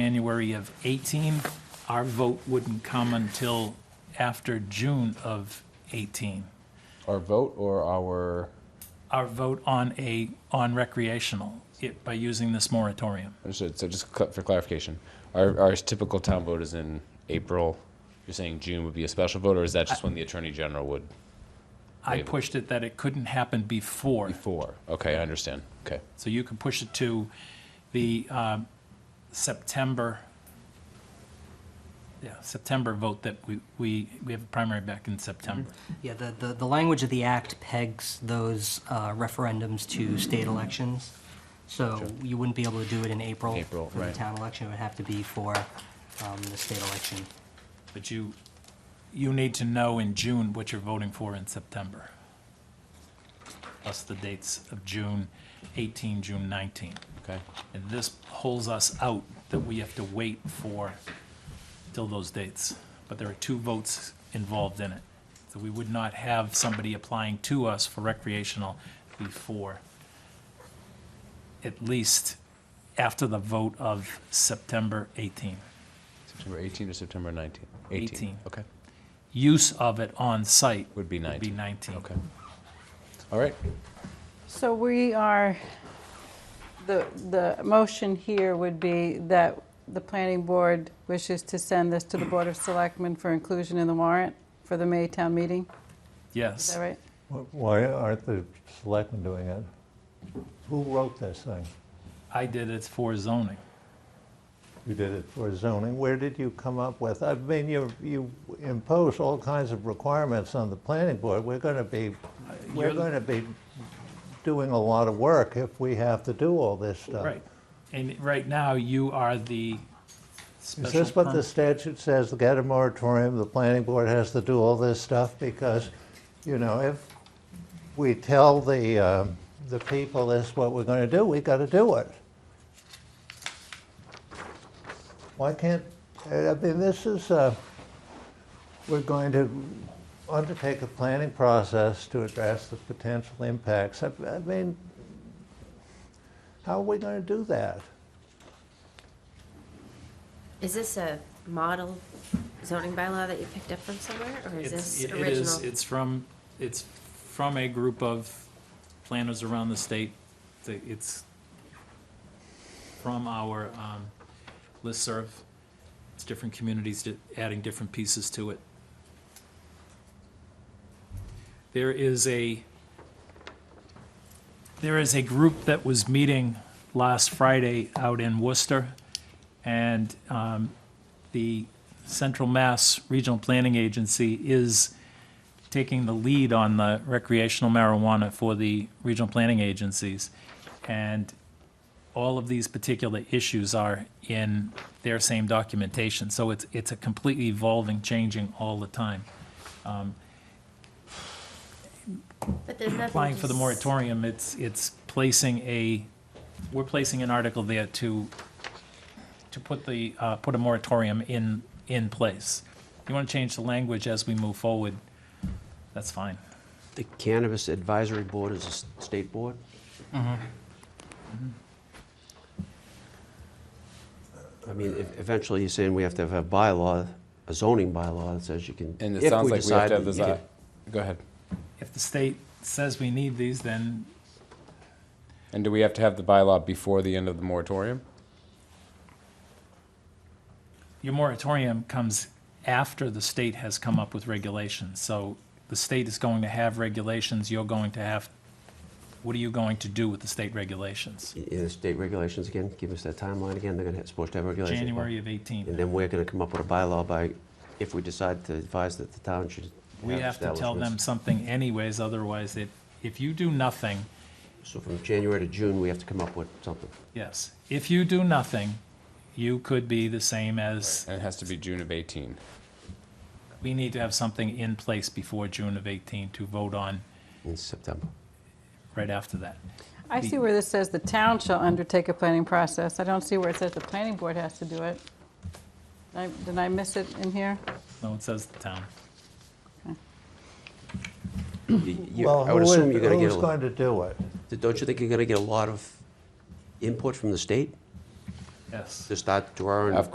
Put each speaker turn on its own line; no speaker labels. January of 18, our vote wouldn't come until after June of 18.
Our vote or our,
Our vote on a, on recreational, it, by using this moratorium.
so so just cl- for clarification, our, our typical town vote is in April. You're saying June would be a special vote, or is that just when the Attorney General would?
I
Right.
pushed it that it couldn't happen before,
Four. Okay, I understand. Okay.
so you can push it to the um, September, yeah, September vote that we, we, we have a primary back in September.
Yeah, the, the, the language of the act pegs those uh, referendums to state elections. So you wouldn't be able to do it in April
April,
for the
right.
town election. It would have to be for um, the state election.
But you, you need to know in June what you're voting for in September. Plus the dates of June 18, June 19.
Okay.
And this holds us out that we have to wait for, till those dates. But there are two votes involved in it. So we would not have somebody applying to us for recreational before, at least after the vote of September 18.
September 18 or September 19?
18.
Okay.
Use of it on site
Would be 19.
Would be 19.
Okay. All right.
So we are, the, the motion here would be that the planning board wishes to send this to the Board of Selectmen for inclusion in the warrant for the May town meeting, is
Yes.
that right?
Wh- Why aren't the selectmen doing it? Who wrote this thing?
I did it for zoning.
You did it for zoning. Where did you come up with? I mean, you, you impose all kinds of requirements on the planning board. We're going to be, we're
you're-
going to be doing a lot of work if we have to do all this stuff.
Right. And right now, you are the
Is
special
this what the
permit.
statute says, the get a moratorium, the planning board has to do all this stuff? Because, you know, if we tell the, um, the people this is what we're gonna do, we gotta do it. Why can't, I I mean, this is, uh, we're going to undertake a planning process to address the potential impacts. I I mean, how are we gonna do that?
Is this a model zoning bylaw that you picked up from somewhere, or is
It's-
this
It it is,
original?
it's from, it's from a group of planners around the state. The- It's from our um, listserv. It's different communities di- adding different pieces to it. There is a, there is a group that was meeting last Friday out in Worcester, and um, the Central Mass Regional Planning Agency is taking the lead on the recreational marijuana for the regional planning agencies. And all of these particular issues are in their same documentation. So it's, it's a completely evolving, changing all the time.
But there's nothing
Applying for the
to s-
moratorium, it's, it's placing a, we're placing an article there to, to put the, uh, put a moratorium in, in place. If you want to change the language as we move forward, that's fine.
The Cannabis Advisory Board is a s- state board?
Mm-hmm.
I mean, if- eventually, you're saying we have to have a bylaw, a zoning bylaw that says you can.
And it
if
sounds like we have
decide
to have
that
this.
you
uh,
can-
Go ahead.
If the state says we need these, then
And do we have to have the bylaw before the end of the moratorium?
Your moratorium comes after the state has come up with regulations, so the state is going to have regulations, you're going to have, what are you going to do with the state regulations?
In the state regulations again, give us that timeline again, they're gonna, supposed to have regulations. by-
January of
And
18.
then we're gonna come up with a bylaw by, if we decide to advise that the town should.
We have to tell them
establishments.
something anyways, otherwise it, if you do nothing,
So from January to June, we have to come up with something.
yes, if you do nothing, you could be the same as,
And it has to be June of 18.
we need to have something in place before June of 18 to vote on
in September.
right after that.
I see where this says the town shall undertake a planning process. I don't see where it says the planning board has to do it. I- Did I miss it in here?
No, it says the town.
You- you-
Well,
I would
who is-
assume you're gonna get a.
Who's going to do it?
Don't you think you're gonna get a lot of input from the state?
Yes.
to start drawing
Of